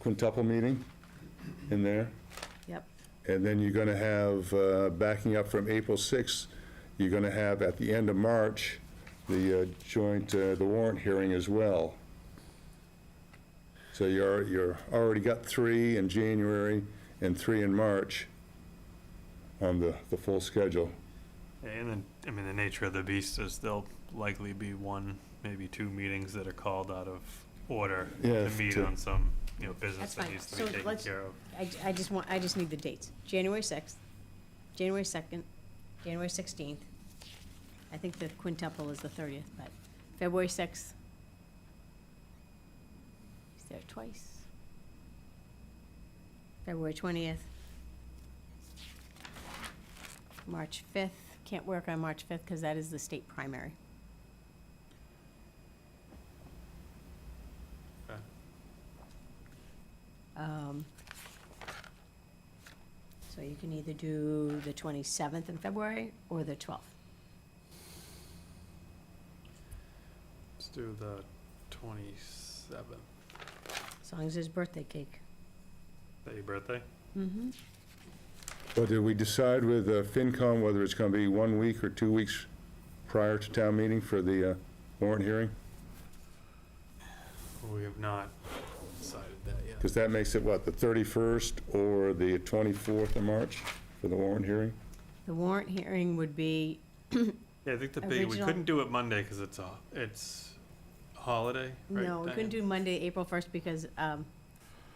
quintuple meeting in there. Yep. And then you're going to have, uh, backing up from April 6th, you're going to have at the end of March, the uh, joint, uh, the warrant hearing as well. So you're, you're already got three in January and three in March on the, the full schedule. And then, I mean, the nature of the beast is there'll likely be one, maybe two meetings that are called out of order Yeah, to meet to- on some, you know, That's business that fine. needs to So be taken let's- care of. I, I just want, I just need the dates. January 6th, January 2nd, January 16th. I think the quintuple is the 30th, but February 6th. He's there twice. February 20th. March 5th. Can't work on March 5th because that is the state primary. Okay. Um, So you can either do the 27th in February or the 12th. Let's do the twenty-seventh. As long as there's birthday cake. Is that your birthday? Mm-hmm. But did we decide with uh, FinCom whether it's going to be one week or two weeks prior to town meeting for the uh, warrant hearing? We have not decided that yet. Because that makes it, what, the 31st or the 24th of March for the warrant hearing? The warrant hearing would be, Yeah, I think the big, we Original- couldn't do it Monday because it's a, it's a holiday, right? no, we couldn't do Monday, April 1st, because um,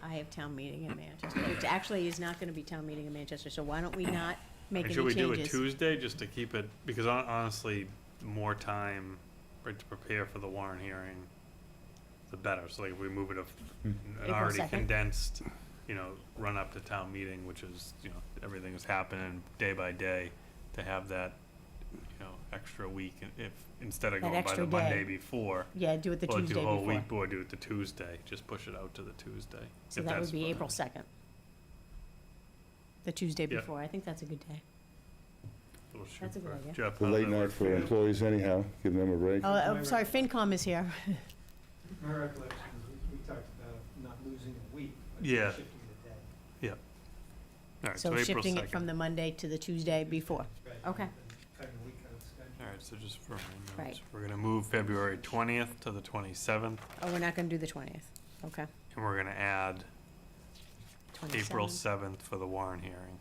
I have town meeting in Manchester, which actually is not going to be town meeting in Manchester, so why don't we not make any Should we do it changes? Tuesday just to keep it, because hon- honestly, more time for- to prepare for the warrant hearing, the better. So like, if we move it of an Hmm. April already 2nd. condensed, you know, run up to town meeting, which is, you know, everything is happening day by day, to have that, you know, extra week, and if, instead of That going by extra the day. Monday before, Yeah, do it the or do Tuesday a whole before. week, or do it the Tuesday, just push it out to the Tuesday. So if that that's would be fine. April 2nd. The Tuesday Yeah. before, I think that's a good day. We'll shoot That's a good for- idea. Jeff, The how does late that night work for you? employees anyhow, give them a break. Oh, I'm sorry, FinCom is here. My recollection is we- we talked about not losing a week, but Yeah. shifting the day. All right, So April shifting it 2nd. from the Monday to the Tuesday before. right, Okay. and Cutting a week out of schedule. All right, so just for my Right. notes, we're gonna move February twentieth to the twenty-seventh, Oh, we're not gonna do the twentieth, okay. and we're gonna add 27. April seventh for the Warren hearing.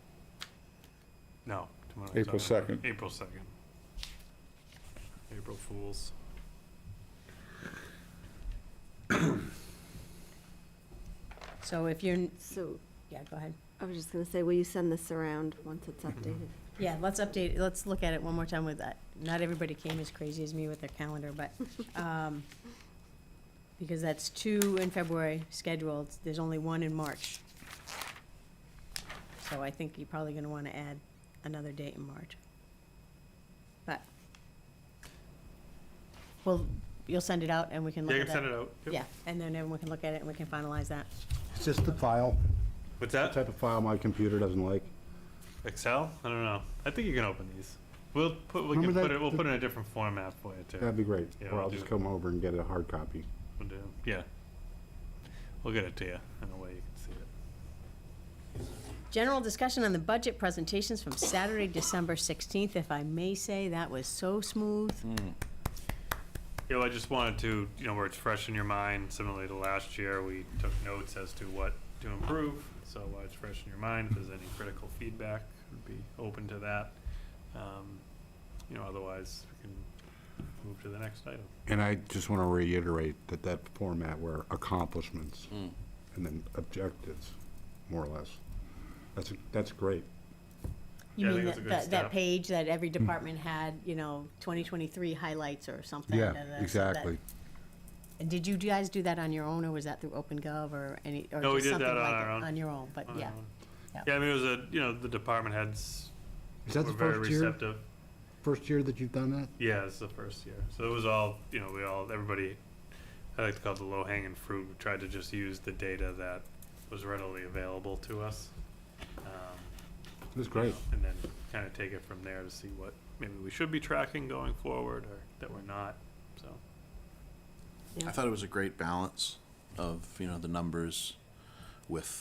No. tomorrow- April sorry, 2nd. April second. April Fools. So if you're, n- So, yeah, go ahead. I was just gonna say, will you send this around once it's updated? Yeah, let's update, let's look at it one more time with that. Not everybody came as crazy as me with their calendar, but, um, because that's two in February scheduled, there's only one in March. So I think you're probably gonna wanna add another date in March. But, well, you'll send it out and we can Yeah, look you at can that. send it out. Yep. Yeah, and then everyone can look at it and we can finalize that. It's just the file, What's the that? type of file my computer doesn't like. Excel? I don't know. I think you can open these. We'll put, we can Remember put that- it, we'll put it in a different format for you too. That'd be great. Yeah, Or I'll I'll do just it. come over and get a hard copy. We'll do, yeah. We'll get it to you in a way you can see it. General discussion on the budget presentations from Saturday, December 16th, if I may say, that was so smooth. Mm. Yeah, well, I just wanted to, you know, where it's fresh in your mind, similarly to last year, we took notes as to what to improve. So while it's fresh in your mind, if there's any critical feedback, would be open to that. Um, You know, otherwise, we can move to the next item. And I just want to reiterate that that format were accomplishments and then objectives, more or less. That's, that's great. You Yeah, I mean think it's a that, good that- that step. Mm. page that every department had, you know, 2023 highlights or something? da- da- da, so that- And Did you guys do that on your own, or was that through OpenGov or any, or No, we just did that something on like our own. it? On your own, but yeah. Um, yeah. Yeah, I mean, it was a, you know, the department heads Is were that the very first year, receptive. first year that you've done that? Yeah, it's the first year. So it was all, you know, we all, everybody, I like to call it the low hanging fruit. We tried to just use the data that was readily available to us. Um, It was great. And then kind of take it from there to see what maybe we should be tracking going forward or that we're not, so. I thought it was a great balance of, you know, the numbers, with